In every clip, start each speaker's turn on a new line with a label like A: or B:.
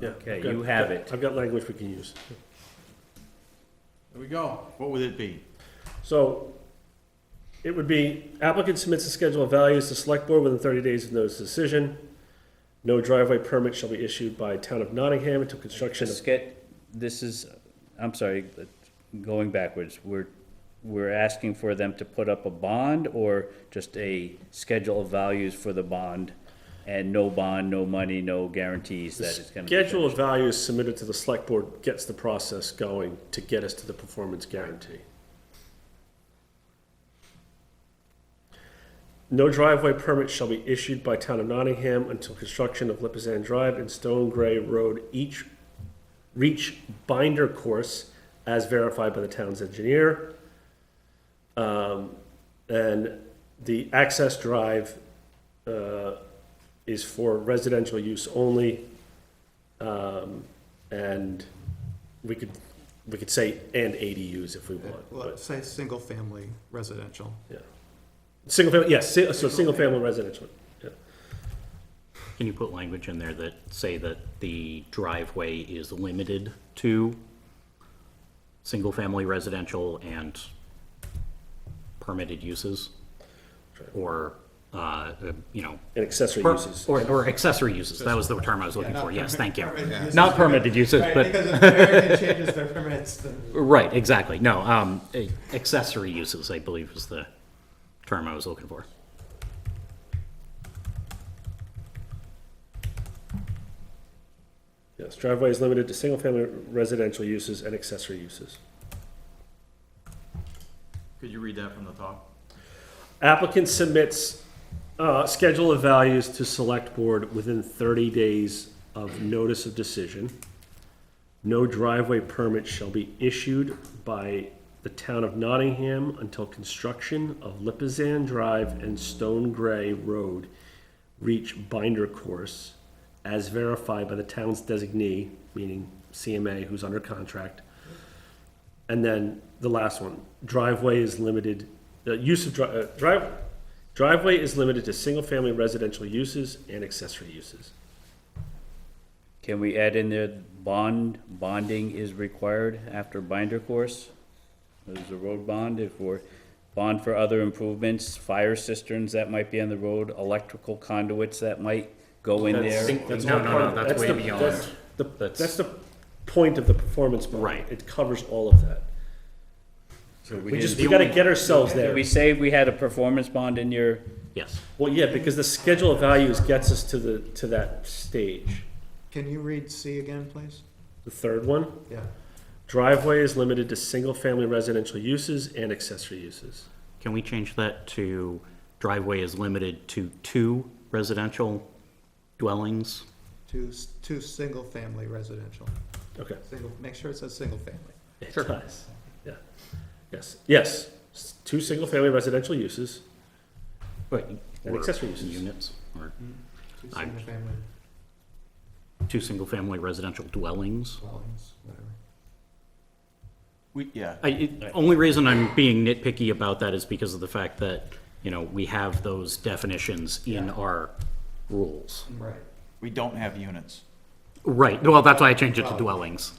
A: Yeah,
B: Okay,
A: I've got-
B: you have it.
A: I've got language we can use.
C: There we go. What would it be?
A: So it would be applicant submits a schedule of values to select board within thirty days of notice of decision. No driveway permit shall be issued by town of Nottingham until construction
B: Just
A: of,
B: get, this is, I'm sorry, but going backwards, we're, we're asking for them to put up a bond or just a schedule of values for the bond? And no bond, no money, no guarantees that it's gonna be.
A: schedule of values submitted to the select board gets the process going to get us to the performance guarantee. No driveway permit shall be issued by town of Nottingham until construction of Lipizan Drive and Stone Gray Road each reach binder course as verified by the town's engineer. Um, and the access drive, uh, is for residential use only. Um, and we could, we could say and ADUs if we want,
D: Well,
A: but,
D: Say, single-family residential.
A: yeah. Single family, yes, si- so single family residential, yeah.
E: Can you put language in there that say that the driveway is limited to single-family residential and permitted uses? Or, uh, uh, you know,
A: and accessory
E: per-
A: uses.
E: or or accessory uses, that was the term I was looking for, yes, thank you.
D: Permitted uses.
E: Not permitted uses,
D: Right,
E: but,
D: because if American changes their permits, then
E: right, exactly, no, um, eh, accessory uses, I believe was the term I was looking for.
A: Yes, driveway is limited to single-family residential uses and accessory uses.
C: Could you read that from the top?
A: Applicant submits uh, schedule of values to select board within 30 days of notice of decision. No driveway permit shall be issued by the town of Nottingham until construction of Lipizan Drive and Stone Gray Road reach binder course as verified by the town's designee, meaning CMA, who's under contract, and then the last one, driveway is limited, the use of dri- uh, drive, driveway is limited to single-family residential uses and accessory uses.
B: Can we add in there, bond, bonding is required after binder course? There's a road bond, if we're, bond for other improvements, fire cisterns that might be on the road, electrical conduits that might go in
A: That's-
B: there.
A: that's
E: No,
A: all
E: no,
A: part
E: no,
A: of-
E: that's way
A: the-
E: beyond.
A: that's the-
E: That's-
A: That's the point of the performance bond.
E: Right.
A: It covers all of that. We just, we gotta get ourselves
B: Did
A: there.
B: we say we had a performance bond in your,
E: Yes,
A: Well, yeah, because the schedule of values gets us to the, to that stage.
D: Can you read C again, please?
A: The third one,
D: Yeah.
A: driveway is limited to single-family residential uses and accessory uses.
E: can we change that to driveway is limited to two residential dwellings?
D: Two, s- two single-family residential.
A: Okay.
D: Single, make sure it says single-family.
A: It does. Yeah. Yes, yes. S- Two single-family residential uses.
E: Right.
A: And accessory uses.
E: Units, or
D: Two
E: I-
D: single-family
E: two single-family residential dwellings.
D: dwellings, whatever.
C: We, yeah.
E: I, it- only reason I'm being nitpicky about that is because of the fact that, you know, we have those definitions in our rules.
D: Right.
C: We don't have units.
E: Right, well, that's why I changed it to
D: Oh.
E: dwellings.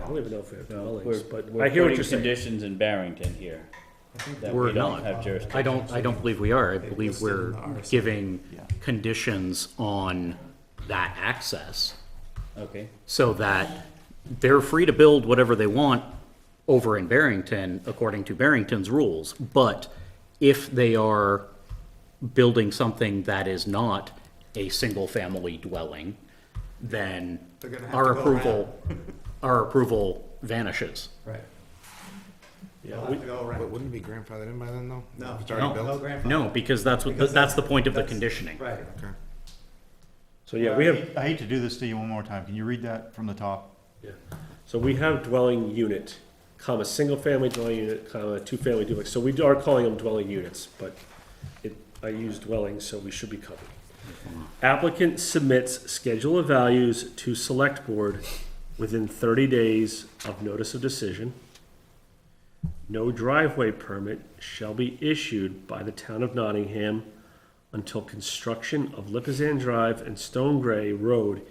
A: I don't even know if we have dwellings,
B: we're,
A: but
B: we're
A: I hear what
B: putting
A: you're saying.
B: conditions in Barrington here. That
E: We're
B: we don't
E: not.
B: have jurisdiction.
E: I don't, I don't believe we are. I believe
D: listed
E: we're
D: in the RSA.
E: giving
C: Yeah.
E: conditions on that access
B: Okay,
E: so that they're free to build whatever they want over in Barrington, according to Barrington's rules. But if they are building something that is not a single-family dwelling, then
D: They're gonna have
E: our
D: to go
E: approval, our approval vanishes.
D: Right.
A: Yeah,
D: They'll
A: we-
D: have to go
F: But
D: around.
F: wouldn't it be grandfathered in by then, though?
D: No.
F: If It's already
D: No
F: built?
D: grandfather.
E: No, because that's what,
D: Because
E: that's the point of the
D: that's-
E: conditioning.
D: Right.
F: Okay.
A: So, yeah, we have,
C: I hate to do this to you one more time. Can you read that from the top?
A: yeah. so we have dwelling unit, comma, single-family dwelling unit, comma, two-family duplex. So we are calling them dwelling units, but it, I use dwelling, so we should be covered. Applicant submits schedule of values to select board within thirty days of notice of decision. No driveway permit shall be issued by the town of Nottingham until construction of Lipizan Drive and Stone Gray Road